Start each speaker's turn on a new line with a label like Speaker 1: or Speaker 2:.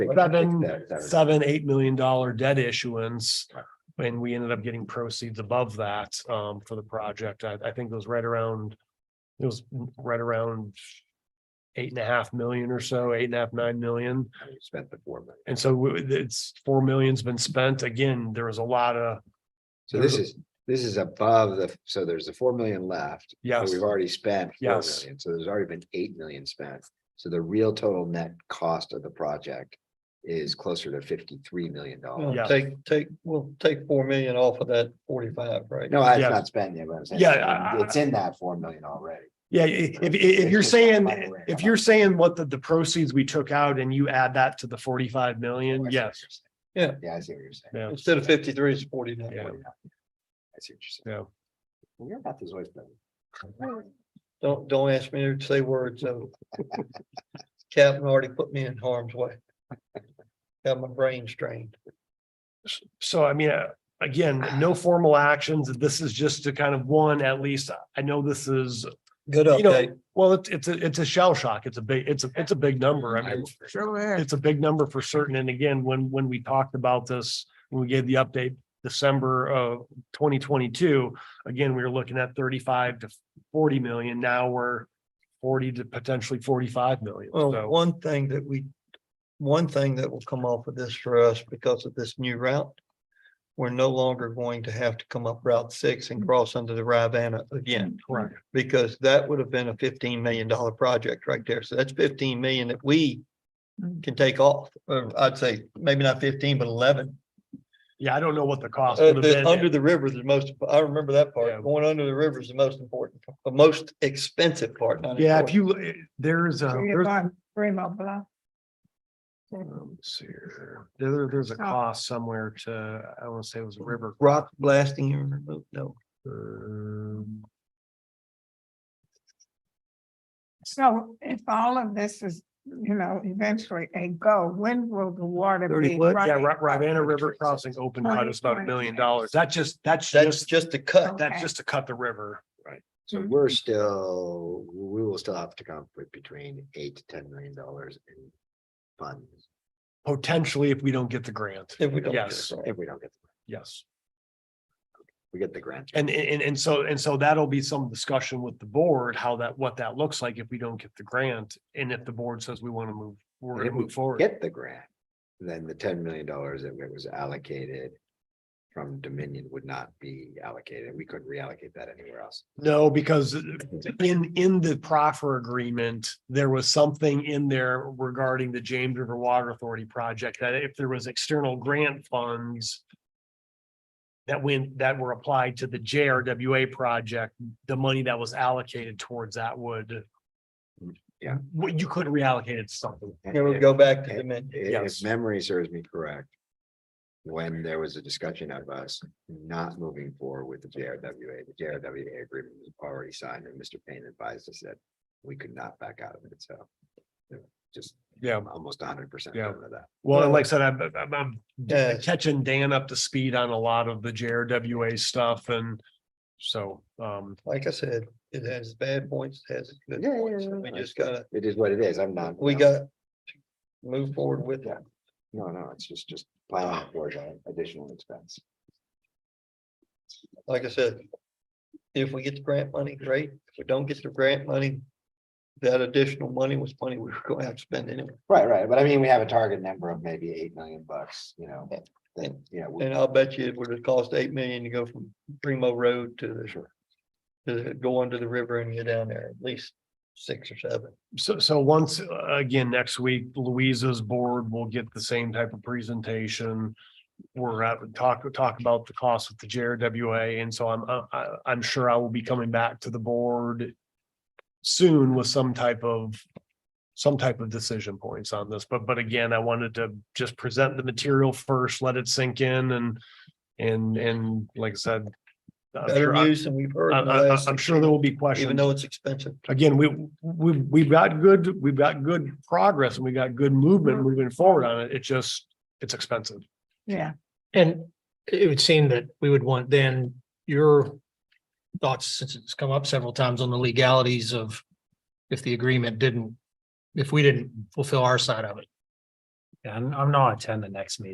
Speaker 1: seven,
Speaker 2: Seven.
Speaker 1: seven, eight million dollar debt issuance.
Speaker 2: Right.
Speaker 1: And we ended up getting proceeds above that um for the project. I I think it was right around. It was right around. Eight and a half million or so, eight and a half, nine million.
Speaker 2: Spent the four million.
Speaker 1: And so we- it's four million's been spent. Again, there was a lot of,
Speaker 2: So this is, this is above the, so there's the four million left. but
Speaker 1: yes,
Speaker 2: We've already spent. 4 million.
Speaker 1: Yes.
Speaker 2: So there's already been eight million spent. So the real total net cost of the project is closer to fifty-three million dollars.
Speaker 1: Yeah.
Speaker 3: Well, Take, take, we'll take four million off of that forty-five, right?
Speaker 2: No, it's
Speaker 1: Yeah.
Speaker 2: not spent yet, but I'm saying.
Speaker 1: Yeah,
Speaker 2: it's in-
Speaker 1: I-
Speaker 2: It's in that four million already.
Speaker 1: yeah, i- if if you're saying, if you're saying what the the proceeds we took out and you add that to the forty five million, yes.
Speaker 3: Yeah.
Speaker 2: Yeah, I see what you're saying.
Speaker 1: Yeah,
Speaker 3: Instead of fifty-three, it's forty-nine.
Speaker 1: Yeah.
Speaker 2: I see what you're saying.
Speaker 1: yeah.
Speaker 2: Well, Your math is always better.
Speaker 3: Don't, don't ask me to say words, so. Captain already put me in harm's way. Got my brain strained.
Speaker 1: So I mean, uh, again, no formal actions. This is just to kind of one, at least, I know this is,
Speaker 3: Good
Speaker 1: You know,
Speaker 3: update.
Speaker 1: well, it's, it's, a it's a shell shock. It's a big, it's a, it's a big number. I mean, it's a big number for certain. And again, when, when we talked about this, when we gave the update December of twenty twenty-two, again, we were looking at thirty-five to forty million. Now we're forty to potentially forty-five million.
Speaker 3: Well,
Speaker 1: So,
Speaker 3: one thing that we, one thing that will come off of this for us because of this new route. We're no longer going to have to come up Route Six and cross under the Rivanna again.
Speaker 1: correct.
Speaker 3: because that would have been a fifteen million dollar project right there. So that's fifteen million that we
Speaker 2: Mm.
Speaker 3: can take off. Or I'd say maybe not fifteen, but eleven.
Speaker 1: Yeah, I don't know what the cost
Speaker 3: Uh,
Speaker 1: would have
Speaker 3: the-
Speaker 1: been.
Speaker 3: Under the river is the most, I remember that
Speaker 1: Yeah.
Speaker 3: part. Going under the river is the most important, the most expensive part. not
Speaker 1: Yeah, if
Speaker 3: important.
Speaker 1: you, there's a, there's Um, let's see here. There- There, there's a cost somewhere to, I want to say it was River.
Speaker 3: Rock blasting, and remove- no,
Speaker 1: um,
Speaker 4: So if all of this is, you know, eventually a go, when will the water
Speaker 3: Thirty
Speaker 4: be?
Speaker 3: foot?
Speaker 1: Yeah,
Speaker 4: running?
Speaker 1: Ri- Rivanna River Crossing open cut is about a million dollars. That just, that's
Speaker 3: that's
Speaker 1: just,
Speaker 3: just a cut.
Speaker 1: that's just to cut the river.
Speaker 2: So
Speaker 4: Mhm.
Speaker 2: we're still, we will still have to come up with between eight to ten million dollars in funds
Speaker 1: Potentially, if we don't get the grant,
Speaker 3: If we don't. get it
Speaker 1: Yes.
Speaker 3: right.
Speaker 2: if we don't get, the-
Speaker 1: yes.
Speaker 2: we get the grant.
Speaker 1: And, and, and so, and so that'll be some discussion with the board, how that, what that looks like if we don't get the grant. And if the board says we want to move, we're
Speaker 2: And
Speaker 1: going
Speaker 2: if
Speaker 1: to
Speaker 2: we
Speaker 1: move forward.
Speaker 2: Get the grant, then the ten million dollars that was allocated from Dominion would not be allocated. We couldn't reallocate that anywhere else.
Speaker 1: No, because in, in the proffer agreement, there was something in there regarding the James River Water Authority project that if there was external grant funds that went, that were applied to the JRWA project, the money that was allocated towards that would
Speaker 2: Yeah.
Speaker 1: Well, you couldn't reallocate it to something.
Speaker 3: Here we go back to the
Speaker 2: I-
Speaker 3: men.
Speaker 2: If
Speaker 1: Yes.
Speaker 2: memory serves me correct. When there was a discussion of us not moving forward with the JRWA, the JRWA agreement was already signed and Mr. Payne advised us that we could not back out of it, so. you know, Just
Speaker 1: Yeah.
Speaker 2: I'm almost hundred percent
Speaker 1: Yeah.
Speaker 2: of that.
Speaker 1: Well, and like I said, I'm, I'm, I'm
Speaker 3: Yeah.
Speaker 1: catching Dan up to speed on a lot of the JRWA stuff and so, um,
Speaker 3: Like I said, it has bad points, it has its good
Speaker 2: Yeah, yeah,
Speaker 3: points.
Speaker 2: yeah,
Speaker 3: and We
Speaker 2: yeah.
Speaker 3: just gotta,
Speaker 2: It is what it is. I'm not.
Speaker 3: we
Speaker 2: I'm-
Speaker 3: got to move forward with it.
Speaker 2: No, no, it's just, just planning for the additional expense.
Speaker 3: like I said. If we get the grant money, great. If we don't get the grant money. That additional money was money we were gonna have to spend anyway.
Speaker 2: Right, right, but I mean, we have a target number of maybe eight million bucks, you know, then, you know. we-
Speaker 3: And I'll bet you it would have cost eight million to go from Primo Road to the. To the- go under the river and get down there, at least six or seven.
Speaker 1: So, so once, uh, again, next week, Louisa's board will get the same type of presentation. We're at, talk, talk about the cost with the JRWA, and so I'm, I, I- I'm sure I will be coming back to the board soon with some type of, some type of decision points on this, but, but again, I wanted to just present the material first, let it sink in and, and, and like I said, I'm
Speaker 3: Better
Speaker 1: sure, I-
Speaker 3: news than we've heard. in the
Speaker 1: I- I-
Speaker 3: last
Speaker 1: I'm
Speaker 3: six
Speaker 1: sure there
Speaker 3: years,
Speaker 1: will be questions
Speaker 3: Even though it's expensive.
Speaker 1: again, we, we, we've got good, we've got good progress and we got good movement moving forward on it. It just, it's expensive.
Speaker 4: Yeah,
Speaker 5: And it would seem that we would want then your thoughts, since it's come up several times on the legalities of if the agreement didn't, if we didn't fulfill our side of it.
Speaker 1: I'm, I'm not attending the next meeting.